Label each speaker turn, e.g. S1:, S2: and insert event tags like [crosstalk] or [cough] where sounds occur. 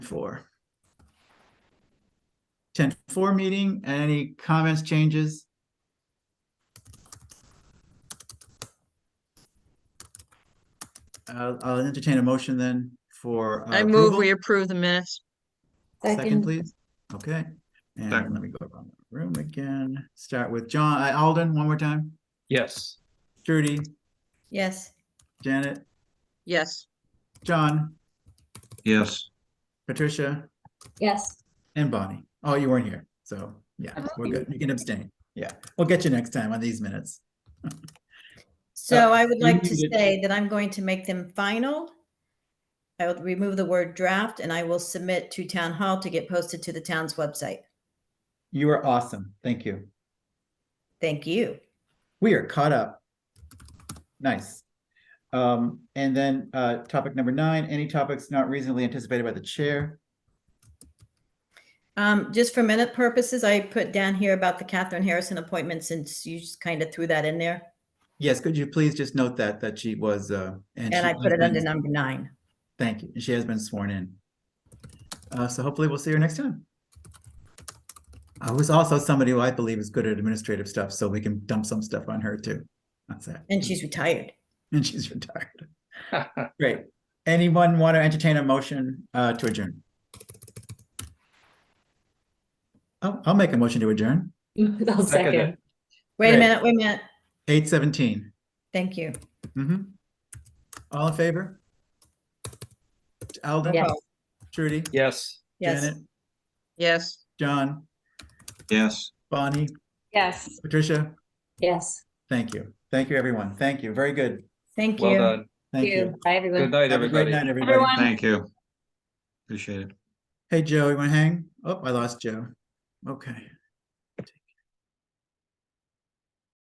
S1: four. Ten four meeting, any comments, changes? I'll, I'll entertain a motion then for. uh,
S2: I move
S1: approval.
S2: we approve the minutes.
S1: Second, please. Okay, and
S3: Second.
S1: let me go around the room again. Start with John, uh, Alden, one more time.
S3: Yes.
S1: Trudy,
S4: Yes,
S1: Janet,
S2: Yes,
S1: John,
S3: Yes.
S1: Patricia,
S5: Yes,
S1: and Bonnie. Oh, you weren't here, so, yeah,
S5: I'm
S1: we're good. You can abstain. Yeah, we'll get you next time on these minutes.
S4: so I would
S3: you
S4: like to
S3: needed-
S4: say that I'm going to make them final. I will remove the word draft and I will submit to town hall to get posted to the town's website.
S1: You are awesome. Thank you.
S4: Thank you.
S1: We are caught up. Nice. Um, and then, uh, topic number nine, any topics not reasonably anticipated by the chair?
S4: Um, just for minute purposes, I put down here about the Catherine Harrison appointment since you just kind of threw that in there.
S1: Yes, could you please just note that, that she was, uh.
S4: And
S1: she
S4: I put it
S1: has
S4: under
S1: been-
S4: number nine.
S1: Thank you. And She has been sworn in. Uh, so hopefully we'll see her next time. Uh, who's also somebody who I believe is good at administrative stuff, so we can dump some stuff on her too. That's it.
S4: And she's retired.
S1: And she's retired. Great. Anyone want to entertain a motion, uh, to adjourn? Oh, I'll, I'll make a motion to adjourn.
S5: [laughs] I'll
S3: Second
S5: second.
S3: it.
S4: Wait a
S1: Great.
S4: minute, wait a minute.
S1: Eight seventeen.
S4: Thank you.
S1: Mm-hmm. All in favor? Alden,
S5: Yes.
S1: Trudy,
S3: [laughs] Yes.
S4: Yes.
S1: Janet,
S2: yes.
S1: John,
S3: Yes.
S1: Bonnie,
S5: Yes.
S1: Patricia?
S5: Yes.
S1: Thank you. Thank you, everyone. Thank you. Very good.
S4: Thank
S3: Well
S4: you.
S3: done.
S1: Thank you.
S5: Bye, everyone.
S3: Good night,
S1: Have a great
S3: everybody.
S1: night, everybody.
S5: Everyone.
S3: Thank you. Appreciate it.
S1: Hey, Joe, you want to hang? Oh, I lost Joe. Okay.